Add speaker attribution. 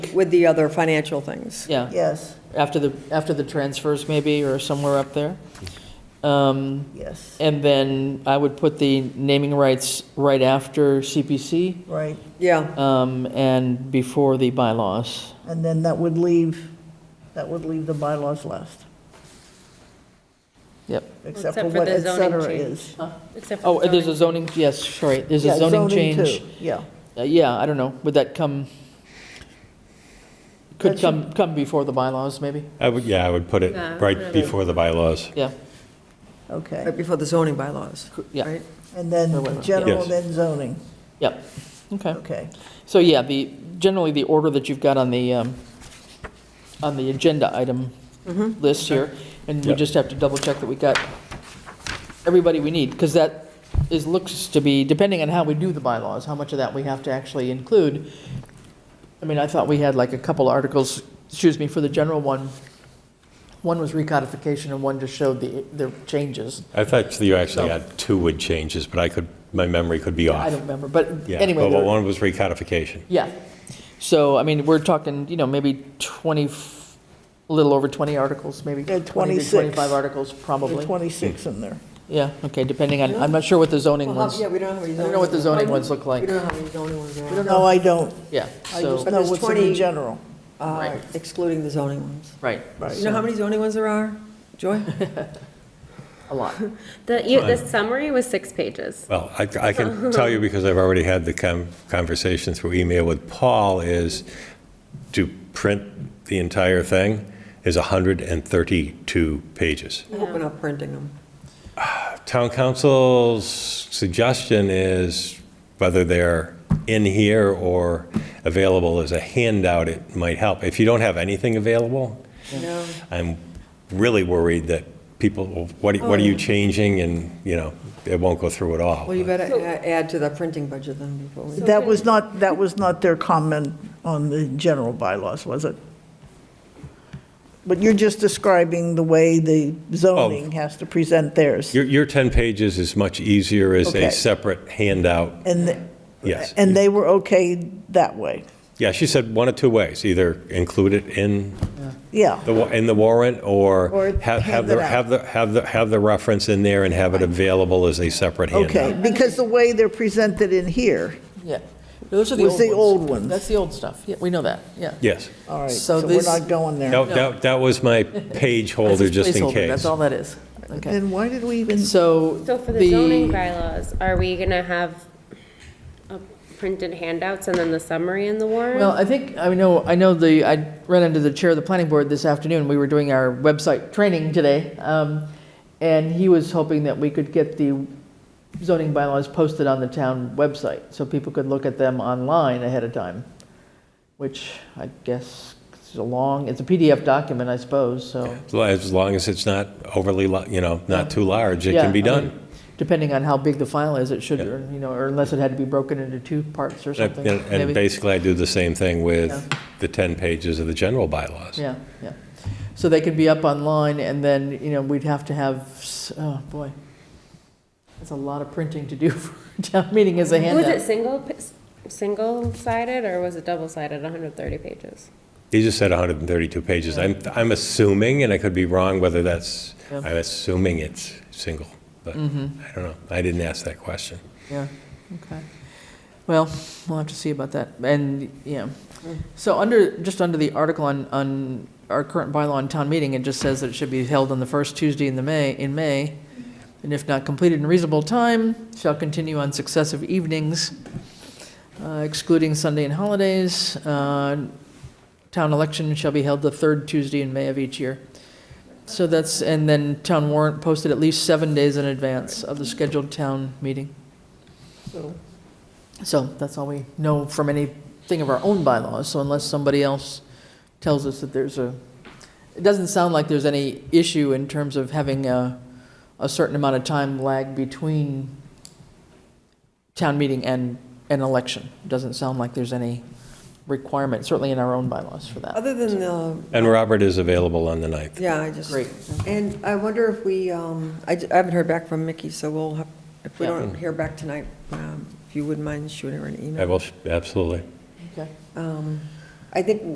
Speaker 1: with, with the other financial things.
Speaker 2: yeah,
Speaker 3: Yes,
Speaker 2: after the, after the transfers maybe, or somewhere up there. Um,
Speaker 3: yes,
Speaker 2: And then I would put the naming rights right after CPC
Speaker 3: right.
Speaker 1: Yeah,
Speaker 2: um, and before the bylaws.
Speaker 3: And then that would leave, that would leave the bylaws left,
Speaker 2: Yep.
Speaker 3: except for
Speaker 4: Except for
Speaker 3: what
Speaker 4: the
Speaker 3: et
Speaker 4: zoning
Speaker 3: cetera
Speaker 4: change.
Speaker 3: is.
Speaker 4: Except for
Speaker 2: Oh,
Speaker 4: zoning.
Speaker 2: there's a zoning, yes, sorry, there's a
Speaker 3: Yeah,
Speaker 2: zoning
Speaker 3: too,
Speaker 2: change.
Speaker 3: Yeah,
Speaker 2: Uh, Yeah, I don't know, would that come,
Speaker 3: That
Speaker 2: could
Speaker 3: should-
Speaker 2: come, come before the bylaws, maybe?
Speaker 5: I would, yeah, I would put it
Speaker 4: Yeah, put
Speaker 5: right
Speaker 4: it-
Speaker 5: before the bylaws.
Speaker 2: Yeah,
Speaker 1: right
Speaker 3: okay.
Speaker 1: before the zoning bylaws,
Speaker 2: cou- yeah,
Speaker 1: right?
Speaker 3: And
Speaker 2: Or whatever, yeah.
Speaker 3: then general,
Speaker 5: Yes.
Speaker 3: then zoning,
Speaker 2: yeah, okay.
Speaker 3: okay.
Speaker 2: So, yeah, the, generally, the order that you've got on the, um, on the agenda item list here, and we
Speaker 5: Yep.
Speaker 2: just have to double check that we got everybody we need, because that is, looks to be, depending on how we do the bylaws, how much of that we have to actually include. I mean, I thought we had like a couple articles, excuse me, for the general one. One was recodification and one just showed the, the changes.
Speaker 5: I thought you actually had two would changes, but I could, my memory could be
Speaker 2: I
Speaker 5: off.
Speaker 2: don't remember, but
Speaker 5: Yeah,
Speaker 2: anyway.
Speaker 5: but
Speaker 2: there-
Speaker 5: one was recodification.
Speaker 2: Yeah. So, I mean, we're talking, you know, maybe 20, f- a little over 20 articles, maybe.
Speaker 3: Yeah,
Speaker 2: 20 to
Speaker 3: 26.
Speaker 2: 25 articles,
Speaker 3: There's
Speaker 2: probably.
Speaker 3: 26 in there.
Speaker 2: Yeah, okay, depending on, I'm not sure what the zoning
Speaker 1: Well,
Speaker 2: ones,
Speaker 1: how- yeah,
Speaker 2: we
Speaker 1: we don't have any zoning.
Speaker 2: don't know what the zoning ones look
Speaker 1: We
Speaker 2: like.
Speaker 1: don't know how many zoning ones there are,
Speaker 3: No, I don't.
Speaker 2: Yeah,
Speaker 3: I just
Speaker 2: so,
Speaker 1: But
Speaker 3: know
Speaker 1: there's
Speaker 3: what's in
Speaker 1: 20
Speaker 3: the general.
Speaker 1: uh, excluding the zoning ones.
Speaker 2: right,
Speaker 1: You know how many zoning ones there are, Joy?
Speaker 2: a lot.
Speaker 4: The, you, the summary was six pages.
Speaker 5: Well, I, I can tell you because I've already had the con- conversation through email with Paul is to print the entire thing is 132 pages.
Speaker 1: I hope we're not printing them.
Speaker 5: Town council's suggestion is whether they're in here or available as a handout, it might help. If you don't have anything available,
Speaker 1: No.
Speaker 5: I'm really worried that people, will- what, what are you changing? And, you know, it won't go through at all.
Speaker 1: Oh. Well, you better a- add to the printing budget then before we.
Speaker 3: That was not, that was not their comment on the general bylaws, was it? But you're just describing the way the zoning has to present theirs.
Speaker 5: Your, your 10 pages is much easier as
Speaker 3: Okay.
Speaker 5: a separate handout,
Speaker 3: And, th-
Speaker 5: yes.
Speaker 3: and they were okay that way.
Speaker 5: Yeah, she said one of two ways, either include it in
Speaker 3: Yeah,
Speaker 5: the, wa- in the warrant
Speaker 3: Or
Speaker 5: or have, have
Speaker 3: hand it
Speaker 5: the,
Speaker 3: out.
Speaker 5: have the, have the, have the reference in there and have it available as a separate
Speaker 3: okay,
Speaker 5: handout.
Speaker 3: because the way they're presented in here,
Speaker 2: Yeah. Those are the old
Speaker 3: Was
Speaker 2: ones.
Speaker 3: the old ones.
Speaker 2: That's the old stuff, yeah, we know that, yeah.
Speaker 5: Yes.
Speaker 3: all right,
Speaker 2: So
Speaker 3: so we're
Speaker 2: this-
Speaker 3: not going there.
Speaker 5: That, that, that was my page holder,
Speaker 2: That's
Speaker 5: just in
Speaker 2: placeholder,
Speaker 5: case.
Speaker 2: That's all that is, okay.
Speaker 3: Then why did we even,
Speaker 2: So.
Speaker 4: So for the zoning bylaws, are we gonna have uh, printed handouts and then the summary in the
Speaker 2: Well,
Speaker 4: warrant?
Speaker 2: I think, I know, I know the, I ran into the chair of the planning board this afternoon, we were doing our website training today, um, and he was hoping that we could get the zoning bylaws posted on the town website, so people could look at them online ahead of time, which I guess is a long, it's a PDF document, I suppose, so.
Speaker 5: As long as it's not overly, lo- you know, not too large, it
Speaker 2: yeah,
Speaker 5: can be
Speaker 2: I mean,
Speaker 5: done.
Speaker 2: Depending on how big the file is, it should,
Speaker 5: Yeah.
Speaker 2: or, you know, or unless it had to be broken into two parts or
Speaker 5: And
Speaker 2: something,
Speaker 5: and
Speaker 2: maybe.
Speaker 5: basically, I do the same thing with the 10 pages of the general bylaws.
Speaker 2: Yeah, yeah. So they could be up online, and then, you know, we'd have to have, s- oh, boy. That's a lot of printing to do for a town meeting as a
Speaker 4: Was it
Speaker 2: handout.
Speaker 4: single, pi- s- single-sided or was it double-sided, hundred and thirty pages?
Speaker 5: He just said 132 pages. I'm, I'm assuming, and I could be wrong, whether that's,
Speaker 2: Yeah. Mm-hmm.
Speaker 5: I'm assuming it's single, but I don't know. I didn't ask that question.
Speaker 2: Yeah, okay. Well, we'll have to see about that, and, yeah. So under, just under the article on, on our current bylaw on town meeting, it just says that it should be held on the first Tuesday in the May, in May, and if not completed in reasonable time, shall continue on successive evenings, uh, excluding Sunday and holidays. Uh, Town election shall be held the third Tuesday in May of each year. So that's, and then town warrant posted at least seven days in advance of the scheduled town meeting. So that's all we know from anything of our own bylaws, so unless somebody else tells us that there's a, it doesn't sound like there's any issue in terms of having a, a certain amount of time lag between town meeting and an election. Doesn't sound like there's any requirement, certainly in our own bylaws for that.
Speaker 1: Other than the,
Speaker 5: And Robert is available on the 9th.
Speaker 1: yeah, I just.
Speaker 2: Great.
Speaker 1: And I wonder if we, um, I j- I haven't heard back from Mickey, so we'll have, if we
Speaker 2: Yeah.
Speaker 1: don't hear back tonight, um, if you wouldn't mind shooting her an
Speaker 5: I
Speaker 1: email.
Speaker 5: will, absolutely.
Speaker 2: Okay.
Speaker 1: Um, I think